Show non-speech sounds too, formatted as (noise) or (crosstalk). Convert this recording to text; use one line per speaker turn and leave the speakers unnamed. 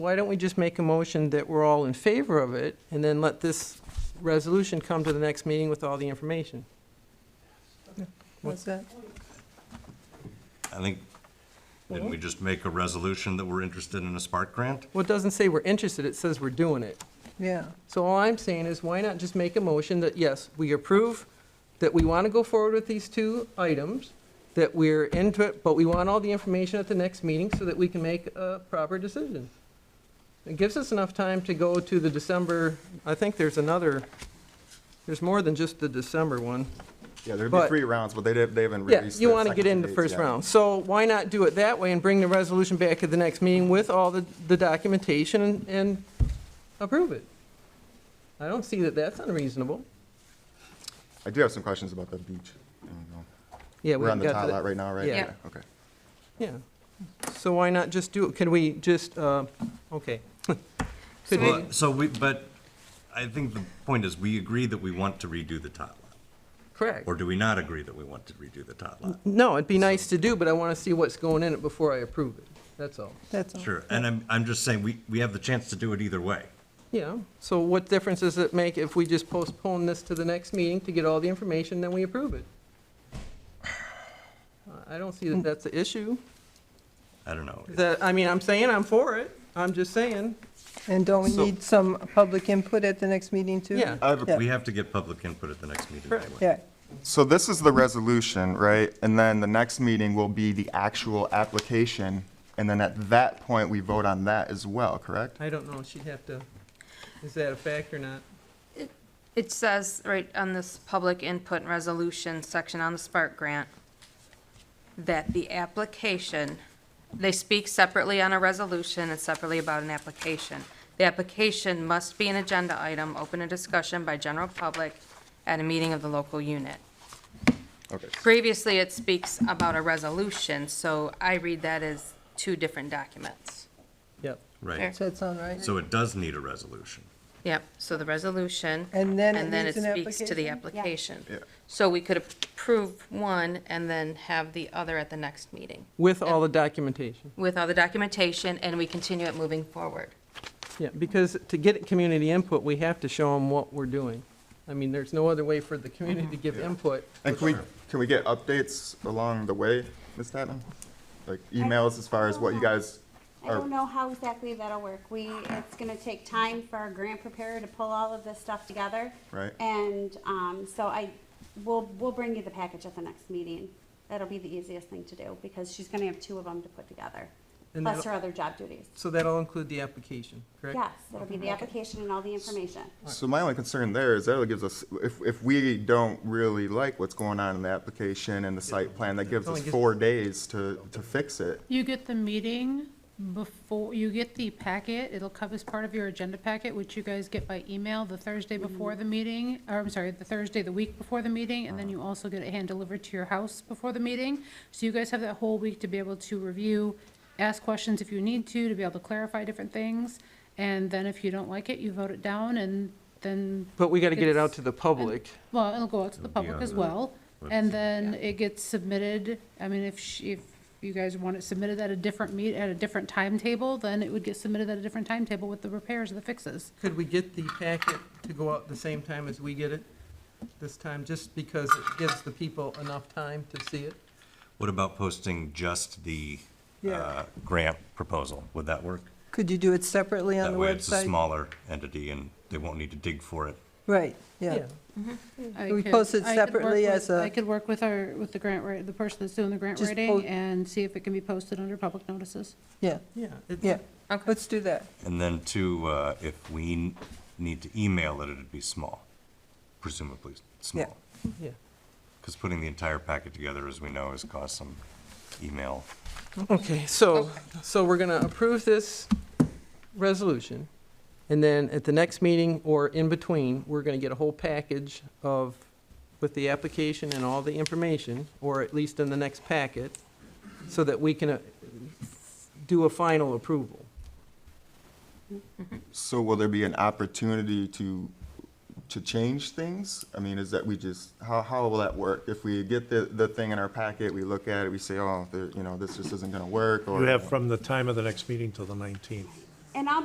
why don't we just make a motion that we're all in favor of it, and then let this resolution come to the next meeting with all the information?
What's that?
I think, didn't we just make a resolution that we're interested in a Spark grant?
Well, it doesn't say we're interested, it says we're doing it.
Yeah,
So all I'm saying is, why not just make a motion that, yes, we approve, that we want to go forward with these two items, that we're into it, but we want all the information at the next meeting so that we can make a proper decision. It gives us enough time to go to the December, I think there's another, there's more than just the December one.
Yeah, there'd
But-
be three rounds, but they didn't, they haven't
Yeah,
released.
you
the
want to
second
get in
two
the
dates
first
yet.
round. So why not do it that way and bring the resolution back at the next meeting with all the, the documentation and, and approve it? I don't see that that's unreasonable.
I do have some questions about the beach. I don't know.
Yeah, we
We're on the
got
tile lot
that,
right now, right?
Yeah.
Yeah.
Okay.
yeah. So why not just do, it? can we just, uh, okay. (laughs) Could
So
we,
it-
So we, but I think the point is, we agree that we want to redo the tot lot.
correct.
Or do we not agree that we want to redo the tot lot?
No, it'd be nice to do, but I want to see what's going in it before I approve it, that's all.
that's all.
Sure, and I'm, I'm just saying, we, we have the chance to do it either way.
Yeah, so what difference does it make if we just postpone this to the next meeting to get all the information, then we approve it? I don't see that that's the issue.
I don't know.
That, I mean, I'm saying I'm for it, I'm just saying,
And don't we
So-
need some public input at the next meeting, too?
yeah.
I have a-
Yeah.
We have to get public input at the next meeting
Correct.
anyway.
Yeah,
So this is the resolution, right? And then the next meeting will be the actual application. And then at that point, we vote on that as well, correct?
I don't know, she'd have to, is that a fact or not?
It says right on this public input and resolution section on the Spark Grant that the application, they speak separately on a resolution and separately about an application. The application must be an agenda item, open to discussion by general public at a meeting of the local unit.
Okay.
Previously, it speaks about a resolution, so I read that as two different documents.
Yep.
Right,
Fair.
does that sound right?
so it does need a resolution.
Yep, so the resolution.
And then it needs an
speaks to the application. So we could approve one and then have the other at the next meeting
With all the documentation,
with all the documentation and we continue it moving forward.
yeah, because to get community input, we have to show them what we're doing. I mean, there's no other way for the community to give input.
And can we, can we get updates along the way, Ms. Tatman? Like emails as far as what you guys
I don't
are,
know how exactly that'll work. We, it's gonna take time for our grant preparer to pull all of this stuff together.
Right.
And, um, so I, we'll, we'll bring you the package at the next meeting. That'll be the easiest thing to do, because she's gonna have two of them to put together,
And
plus
that'll-
her other job duties.
So that'll include the application, correct?
Yes, it'll be the application and all the information.
so my only concern there is that it gives us, if, if we don't really like what's going on in the application and the site plan, that gives
Only
us
gives-
four days to, to fix it.
You get the meeting before, you get the packet, it'll come as part of your agenda packet, which you guys get by email the Thursday before the meeting, or I'm sorry, the Thursday, the week before the meeting, and then you also get it hand-delivered to your house before the meeting. So you guys have that whole week to be able to review, ask questions if you need to, to be able to clarify different things. And then if you don't like it, you vote it down, and then
But we gotta get it out
It's-
to the public.
well, it'll go out to the
It'll be
public
on
as
the
well, and then it gets submitted, I mean, if, sh- if you guys want it submitted at a different meet, at a different timetable, then it would get submitted at a different timetable with the repairs and the fixes.
Could we get the packet to go out the same time as we get it this time, just because it gives the people enough time to see it?
What about posting just the uh,
Yeah.
grant proposal? Would that work?
Could you do it separately on
That
the
way it's a
website?
smaller entity and they won't need to dig for it.
Right, yeah.
I
Can we
could-
post it
I could work
separately
with-
as a-
I could work with our, with the grant, wri- the person that's doing the grant
Just po-
writing, and see if it can be posted under public notices.
Yeah,
Yeah. it's-
yeah.
Okay.
Let's do that.
And then two, uh, if we n- need to email it, it'd be small, presumably small.
Yeah.
Because putting the entire packet together, as we know, has caused some email.
Okay, so, so we're gonna approve this resolution, and then at the next meeting or in between, we're gonna get a whole package of, with the application and all the information, or at least in the next packet, so that we can uh, do a final approval.
So will there be an opportunity to, to change things? I mean, is that we just, how, how will that work? If we get the, the thing in our packet, we look at it, we say, oh, there- you know, this just isn't gonna work, or.
You have from the time of the next meeting till the 19th.
And I'll